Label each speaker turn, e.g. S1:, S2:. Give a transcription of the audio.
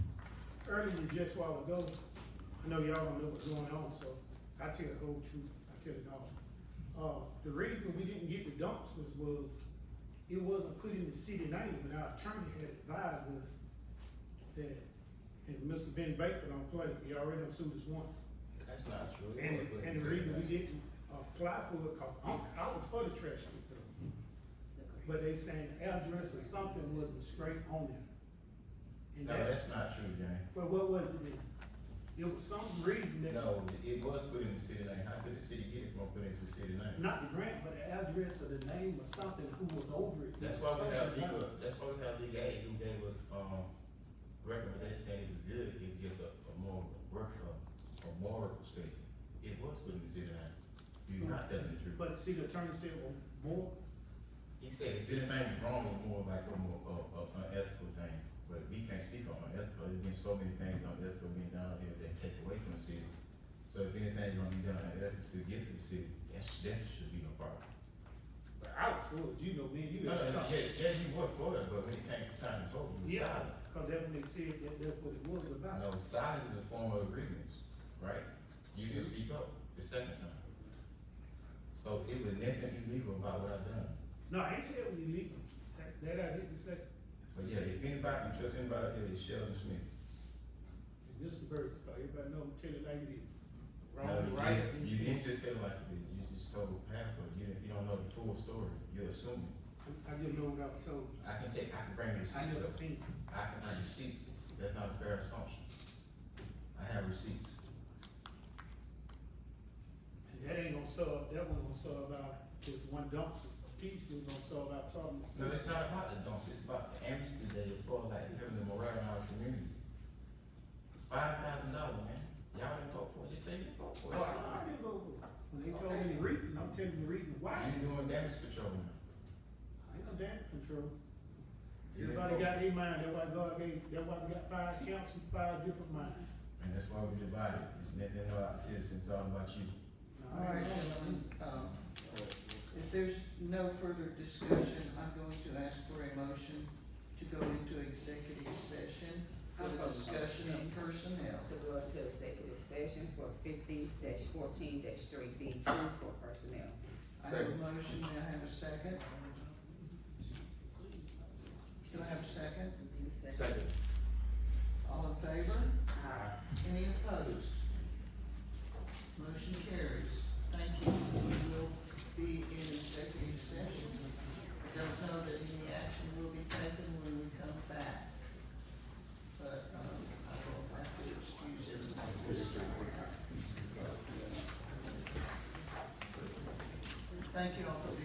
S1: earlier, just a while ago, I know y'all don't know what's going on, so I tell the whole truth, I tell it all. Uh, the reason we didn't get the dumpsters was, it wasn't put in the city name, and our attorney had advised us that, and Mr. Ben Baker don't play, he already done sued us once.
S2: That's not true.
S1: And, and the reason we didn't apply for it, cause I'm, I was for the trash pickup. But they saying the address or something wasn't straight on it. And
S2: No,
S1: that's,
S2: that's not true, Jane.
S1: but what was it then? It was some reason that,
S2: No, it was put in the city name. How could the city get it from putting it in the city name?
S1: not the grant, but the address or the name or something, who was over it.
S2: That's why we have legal, that's why we have legal aid who gave us, um, recommendation saying it was good, it gives a, a moral, work, a, a moral perspective. It was put in the city name. You're not telling the truth.
S1: But see, the attorney said, well, more,
S2: He said if anything's wrong, it's more like from a, a, a, an ethical thing, but we can't speak on unethical, there's been so many things unethical being done here that take away from the city. So if anything's gonna be done unethical to get to the city, that's, that should be no problem.
S1: but I was fooled, you know, man, you
S2: No,
S1: got to
S2: no, yeah, yeah, you were for it, but when it came time to vote, you were
S1: Yeah,
S2: silent.
S1: cause that's when they said that that's what it was about.
S2: No, silence is a form of agreements, right? You didn't speak up the second time. So it was nothing illegal about what I done.
S1: No, I ain't saying it was illegal, that, that I didn't say,
S2: But yeah, if anybody can trust anybody out here, it's Sheldon Smith.
S1: And this is birds, cause everybody know, I'm telling you like it is.
S2: No,
S1: Wrong,
S2: Uh, you
S1: right,
S2: just-
S1: and
S2: You
S1: shit.
S2: didn't just tell like it is. you just told half of it, you didn't, you don't know the full story, you're assuming.
S1: I just know what I was told,
S2: I can take, I can bring receipts
S1: I never
S2: up,
S1: seen it.
S2: I can bring receipts, that's not a fair assumption. I have receipts,
S1: And that ain't gonna solve, that one gonna solve our, just one dumpster piece, we gonna solve our problem.
S2: no, it's not about the dumps, it's about the amnesty that is for like having the morale in our community. Five thousand dollars, man, y'all didn't vote for it, you say you didn't vote for
S1: Oh, I
S2: it.
S1: I didn't go, when they told me the reason, I'm telling you the reason why, I
S2: You doing damage control now.
S1: ain't no damn control.
S2: You didn't
S1: Everybody
S2: vote.
S1: got their mind, that's why God gave, that's why we got five councils, five different minds.
S2: And that's why we divided, it's nothing about the citizens, it's all about you.
S1: Now, I
S3: All right,
S1: ain't gonna-
S3: gentlemen, um, if there's no further discussion, I'm going to ask for a motion to go into executive session for the discussion of personnel.
S4: to go into executive session for fifty fourteen three B two for personnel.
S3: I have a motion, may I have a second? Do I have a second?
S2: Second.
S3: All in favor?
S4: Aye.
S3: Any opposed? Motion carries. Thank you. We will be in executive session. I don't know that any action will be taken when we come back. But, um, I will have to excuse everybody this time. Thank you all for being